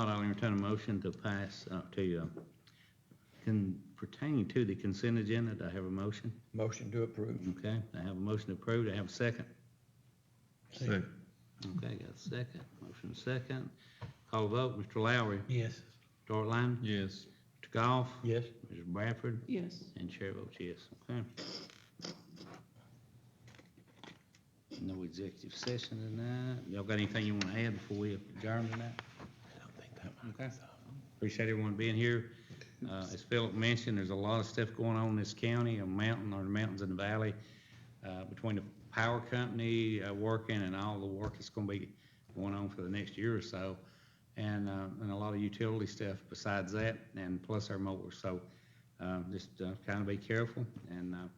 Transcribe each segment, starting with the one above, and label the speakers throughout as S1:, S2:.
S1: entertain a motion to pass, uh, to, uh, can pertain to the consent agenda. Do I have a motion?
S2: Motion to approve.
S1: Okay, I have a motion approved. I have a second.
S3: Second.
S1: Okay, got a second. Motion second. Call vote, Mr. Lowry,
S2: Yes.
S1: Dart Line,
S3: Yes.
S1: Mr. Goff,
S2: Yes.
S1: Mr. Bradford,
S4: Yes.
S1: and Chair votes yes. Okay. No executive session tonight. Y'all got anything you want to add before we adjourn tonight? Okay. Appreciate everyone being here. Uh, as Philip mentioned, there's a lot of stuff going on in this county, a mountain or the mountains in the valley, uh, between the power company, uh, working and all the work that's gonna be going on for the next year or so. And, uh, and a lot of utility stuff besides that and plus our mowers. So, uh, just, uh, kind of be careful. And, uh,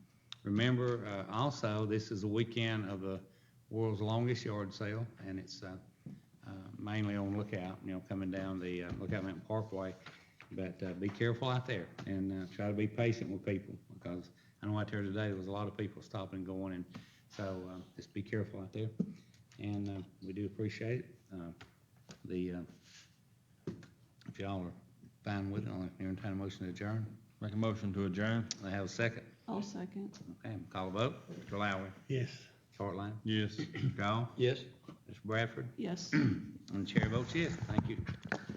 S1: remember, uh, also, this is the weekend of the world's longest yard sale and it's, uh, uh, mainly on Lookout, you know, coming down the uh, Lookout Mountain Parkway. But uh, be careful out there and uh, try to be patient with people because I know out there today, there was a lot of people stopping and going and so uh, just be careful out there. And uh, we do appreciate it. Uh, The, uh, if y'all are fine with it, I'll entertain a motion to adjourn.
S3: Make a motion to adjourn?
S1: I have a second.
S4: I'll second.
S1: Okay, call a vote. Mr. Lowry,
S2: Yes.
S1: Hartline,
S3: Yes.
S1: Mr. Goff,
S2: Yes.
S1: Mr. Bradford,
S4: Yes.
S1: and the chair votes yes. Thank you.